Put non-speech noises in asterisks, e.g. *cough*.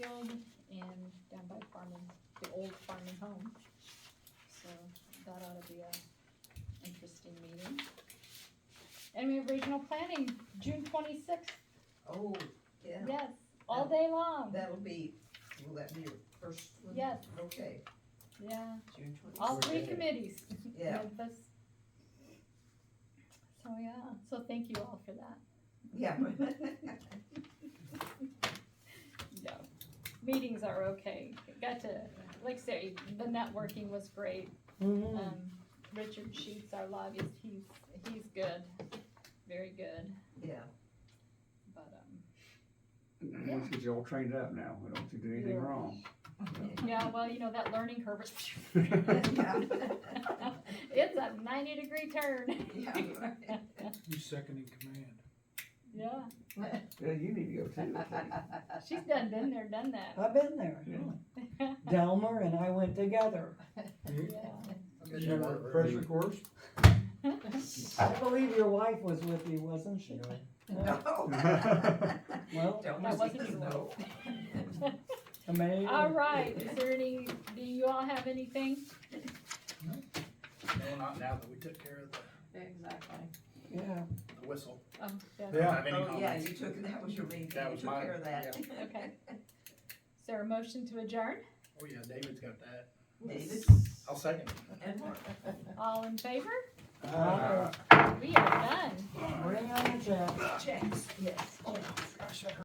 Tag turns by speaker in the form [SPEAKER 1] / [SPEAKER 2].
[SPEAKER 1] And we have regional planning, June twenty-sixth,
[SPEAKER 2] Oh, yeah,
[SPEAKER 1] yes, all day long,
[SPEAKER 2] that'll be, will that be your first one?
[SPEAKER 1] Yes.
[SPEAKER 2] Okay,
[SPEAKER 1] yeah,
[SPEAKER 2] June
[SPEAKER 1] all
[SPEAKER 2] twenty-sixth.
[SPEAKER 1] three committees.
[SPEAKER 2] Yeah.
[SPEAKER 1] Memphis. So, yeah, so thank you all for that.
[SPEAKER 2] *laughs* Yeah.
[SPEAKER 1] No, meetings are okay, got to, like I say, the networking was great.
[SPEAKER 2] Mm.
[SPEAKER 1] Um, Richard Sheets, our lobbyist, he's, he's good, very good,
[SPEAKER 2] Yeah, *laughs*
[SPEAKER 1] but, um,
[SPEAKER 3] Once you get all trained up now, we don't think you do anything wrong.
[SPEAKER 1] yeah, well, you know, that learning curve is. *laughs*
[SPEAKER 2] Yeah.
[SPEAKER 1] It's a ninety degree turn,
[SPEAKER 2] yeah,
[SPEAKER 4] You second in command.
[SPEAKER 1] yeah,
[SPEAKER 2] right.
[SPEAKER 3] Yeah, you need to go too. I think.
[SPEAKER 1] Uh, she's done been there, done that,
[SPEAKER 5] I've been there.
[SPEAKER 1] yeah.
[SPEAKER 5] Delmer and I went together.
[SPEAKER 4] You remember pressure course?
[SPEAKER 5] I believe your wife was with you, wasn't she?
[SPEAKER 2] No.
[SPEAKER 5] Well,
[SPEAKER 2] Don't
[SPEAKER 1] That wasn't
[SPEAKER 2] say
[SPEAKER 1] your
[SPEAKER 2] no.
[SPEAKER 5] amazing.
[SPEAKER 1] All right, is there any, do you all have anything?
[SPEAKER 6] No, not now that we took care of the,
[SPEAKER 7] Exactly.
[SPEAKER 5] Yeah,
[SPEAKER 6] the whistle.
[SPEAKER 1] Oh, yeah,
[SPEAKER 4] Yeah.
[SPEAKER 6] Have any
[SPEAKER 2] Oh, yeah,
[SPEAKER 6] comments?
[SPEAKER 2] you took, that was your main thing,
[SPEAKER 6] That
[SPEAKER 2] you
[SPEAKER 6] was
[SPEAKER 2] took
[SPEAKER 6] mine,
[SPEAKER 2] care of that. *laughs*
[SPEAKER 1] okay. Is there a motion to adjourn?
[SPEAKER 6] Oh, yeah, David's got that.
[SPEAKER 2] David
[SPEAKER 6] I'll second.
[SPEAKER 2] and Mark.
[SPEAKER 1] All in favor?
[SPEAKER 5] Uh,
[SPEAKER 1] We are done.
[SPEAKER 5] bring on the check.
[SPEAKER 2] James, yes. Oh, gosh, I